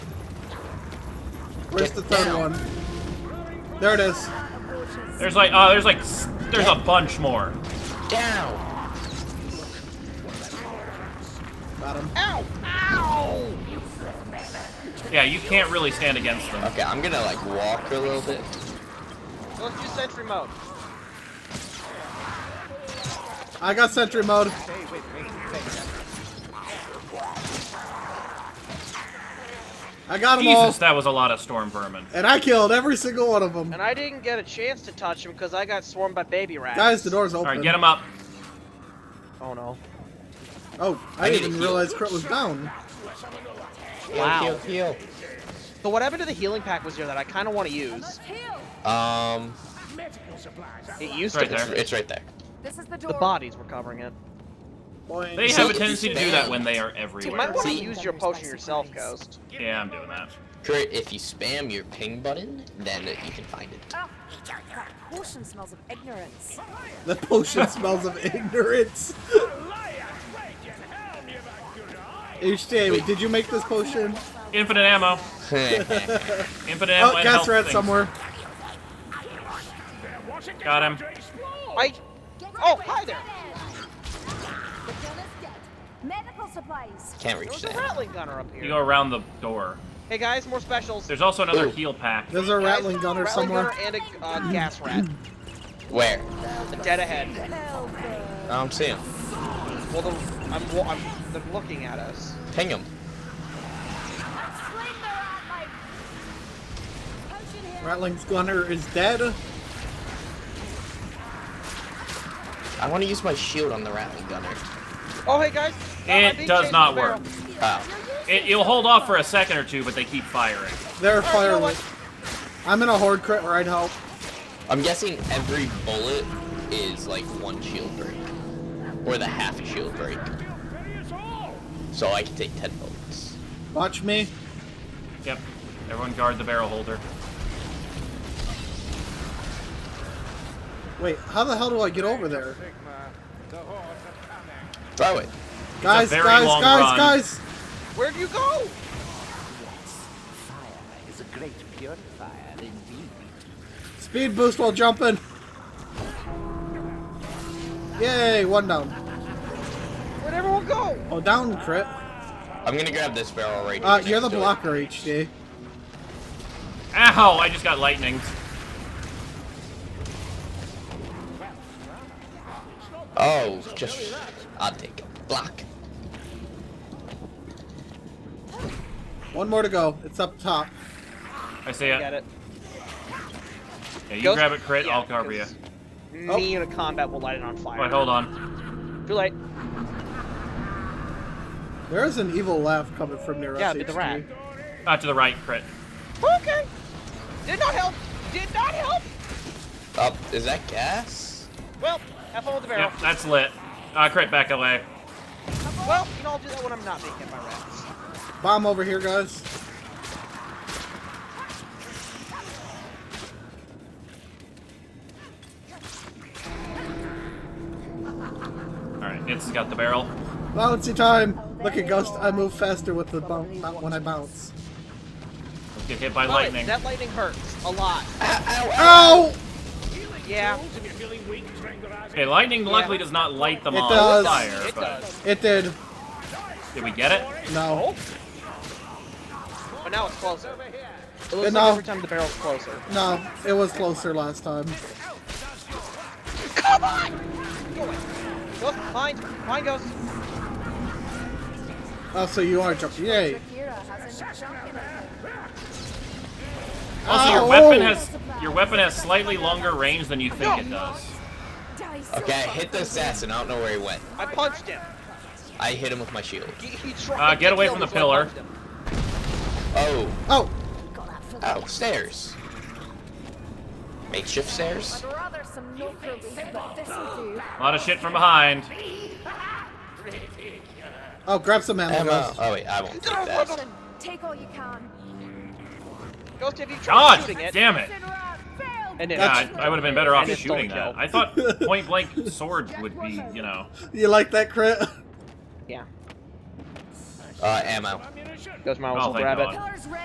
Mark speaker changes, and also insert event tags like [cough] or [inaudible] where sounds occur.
Speaker 1: Where's the third one? There it is.
Speaker 2: There's like, oh, there's like, s- there's a bunch more.
Speaker 3: Down.
Speaker 1: Got him.
Speaker 3: Ow. Ow.
Speaker 2: Yeah, you can't really stand against them.
Speaker 3: Okay, I'm gonna like walk a little bit.
Speaker 4: Let's do sentry mode.
Speaker 1: I got sentry mode. I got them all,
Speaker 2: Jesus, that was a lot of storm vermin.
Speaker 1: and I killed every single one of them.
Speaker 4: And I didn't get a chance to touch him because I got swarmed by baby rats.
Speaker 1: Guys, the door's
Speaker 2: All
Speaker 1: open.
Speaker 2: right, get him up.
Speaker 4: Oh no.
Speaker 1: Oh, I,
Speaker 3: I need
Speaker 1: didn't
Speaker 3: to
Speaker 1: even
Speaker 3: heal.
Speaker 1: realize Crit was down.
Speaker 4: Wow.
Speaker 3: Heal, heal,
Speaker 4: So what happened to the healing pack was here that I kind of want to use?
Speaker 3: heal. Um,
Speaker 4: It used
Speaker 2: Right
Speaker 4: to.
Speaker 3: it's,
Speaker 2: there.
Speaker 3: it's right there.
Speaker 5: This is the
Speaker 4: The
Speaker 5: door.
Speaker 4: bodies were covering it.
Speaker 1: Boing.
Speaker 2: They have a tendency to do that when they are
Speaker 4: You might
Speaker 2: everywhere.
Speaker 4: want to
Speaker 3: See?
Speaker 4: use your potion yourself, Ghost.
Speaker 2: Yeah, I'm doing that.
Speaker 3: Crit, if you spam your ping button, then you can find it. [laughs]
Speaker 5: Oh, that portion smells of ignorance.
Speaker 1: The potion [laughs] smells of ignorance. HTA, did you make this potion?
Speaker 2: Infinite ammo. Infinite ammo.
Speaker 1: Oh,
Speaker 2: and
Speaker 1: gas
Speaker 2: health
Speaker 1: rat
Speaker 2: things.
Speaker 1: somewhere.
Speaker 2: Got him.
Speaker 4: I. Oh, hi there.
Speaker 5: The gun is dead. Medical supplies.
Speaker 3: Can't
Speaker 4: There
Speaker 3: reach
Speaker 4: was a
Speaker 3: that.
Speaker 4: rattling gunner up
Speaker 2: You go
Speaker 4: here.
Speaker 2: around the door.
Speaker 4: Hey guys, more specials.
Speaker 2: There's also another
Speaker 3: Ooh.
Speaker 2: heal pack.
Speaker 1: There's a
Speaker 4: Guys,
Speaker 1: rattling gunner
Speaker 4: rattling
Speaker 1: somewhere.
Speaker 4: gunner and a uh, gas rat.
Speaker 3: Where? Um,
Speaker 4: Dead ahead.
Speaker 3: I'm seeing. him.
Speaker 4: Well, the, I'm, wa- I'm they're looking at us.
Speaker 3: Ping him.
Speaker 1: Rattling gunner is dead.
Speaker 3: I want to use my shield on the rattling gunner.
Speaker 4: Oh, hey guys. Uh, I'm
Speaker 2: It
Speaker 4: being
Speaker 2: does
Speaker 4: chased
Speaker 2: not
Speaker 4: by a
Speaker 2: work.
Speaker 4: barrel.
Speaker 3: Oh,
Speaker 2: It, it'll hold off for a second or two, but they keep firing.
Speaker 1: They're
Speaker 4: Oh, you know
Speaker 1: firewood.
Speaker 4: what?
Speaker 1: I'm in a horde crit right help.
Speaker 3: I'm guessing every bullet is like one shield break, or the half a shield break. So I can take ten bullets.
Speaker 1: Watch me.
Speaker 2: Yep. Everyone guard the barrel holder.
Speaker 1: Wait, how the hell do I get over there?
Speaker 3: Throw it.
Speaker 1: Guys,
Speaker 2: very
Speaker 1: guys,
Speaker 2: long
Speaker 1: guys,
Speaker 2: run.
Speaker 1: guys!
Speaker 4: Where'd you go?
Speaker 1: Speed boost while jumping. Yay, one down.
Speaker 4: Where'd everyone go?
Speaker 1: Oh, down crit.
Speaker 3: I'm gonna grab this barrel right
Speaker 1: Uh, you're
Speaker 3: here
Speaker 1: the
Speaker 3: next to it.
Speaker 1: blocker, HD.
Speaker 2: Ow! I just got lightning.
Speaker 3: Oh, just I'll take him. Block.
Speaker 1: One more to go. It's up top.
Speaker 2: I see
Speaker 4: Get
Speaker 2: it.
Speaker 4: it.
Speaker 2: Yeah, you
Speaker 4: Ghost-
Speaker 2: grab it, crit.
Speaker 4: yeah,
Speaker 2: I'll cover you.
Speaker 4: 'cause
Speaker 1: Oh.
Speaker 4: Me in a combat will light it on fire.
Speaker 2: Wait, hold on.
Speaker 4: Too late.
Speaker 1: There is an evil laugh coming from near
Speaker 4: Yeah,
Speaker 1: us.
Speaker 4: but the
Speaker 1: HD.
Speaker 4: rat.
Speaker 2: Not to the right, crit.
Speaker 4: Okay. Did not help. Did not help.
Speaker 3: Up. Is that gas?
Speaker 4: Well, have fun with the barrel.
Speaker 2: Yep, that's lit. Uh, crit, back away.
Speaker 4: Well, you know, I'll do that when I'm not being hit by rats.
Speaker 1: Bomb over here, guys.
Speaker 2: All right, it's got the barrel.
Speaker 1: Bouncy time. Look at Ghost. I move faster with the bounce not when I bounce.
Speaker 2: Let's get hit by
Speaker 4: Love it.
Speaker 2: lightning.
Speaker 4: That lightning hurts a lot. Oh.
Speaker 1: Ow!
Speaker 4: Yeah.
Speaker 2: Okay, lightning luckily does not light them
Speaker 1: It
Speaker 2: on
Speaker 1: does.
Speaker 2: fire,
Speaker 4: It
Speaker 2: but
Speaker 4: does.
Speaker 1: It did.
Speaker 2: did we get it?
Speaker 4: Oh.
Speaker 1: No.
Speaker 4: But now it's closer. It looks
Speaker 1: And
Speaker 4: like
Speaker 1: now-
Speaker 4: every time the barrel's closer.
Speaker 1: No. It was closer last time.
Speaker 4: Come on! Go away. Look, mine, mine goes.
Speaker 1: Oh, so you are jumping. Yay.
Speaker 2: Also, your
Speaker 1: Ow.
Speaker 2: weapon has your weapon has slightly longer range than you think it does.
Speaker 3: Okay, I hit the assassin. I don't know where he went.
Speaker 4: I punched him.
Speaker 3: I hit him with my shield.
Speaker 4: He, he tried.
Speaker 2: Uh, get
Speaker 4: to
Speaker 2: away
Speaker 4: kill
Speaker 2: from
Speaker 4: me,
Speaker 2: the
Speaker 4: so I
Speaker 2: pillar.
Speaker 4: punched him.
Speaker 3: Oh,
Speaker 1: Oh,
Speaker 3: ow, stairs. Makeshift stairs.
Speaker 5: Rather some no but this'll do.
Speaker 2: A lot of shit from behind.
Speaker 1: oh, grab some ammo,
Speaker 3: Ammo.
Speaker 1: Ghost.
Speaker 3: Oh wait, I won't take that.
Speaker 5: Take all you can.
Speaker 4: Ghost, if you tried
Speaker 2: God
Speaker 4: shooting it.
Speaker 2: damn it!
Speaker 4: And it
Speaker 2: God, I would have been better off
Speaker 4: And it's
Speaker 2: shooting
Speaker 4: don't
Speaker 2: that. I thought
Speaker 1: [laughs]
Speaker 2: point blank sword would be, you know.
Speaker 1: You like that crit? [laughs]
Speaker 4: Yeah.
Speaker 3: Uh, ammo.
Speaker 4: Ghost might
Speaker 3: Uh,
Speaker 2: Oh,
Speaker 4: also
Speaker 2: thank
Speaker 4: grab it.
Speaker 2: God.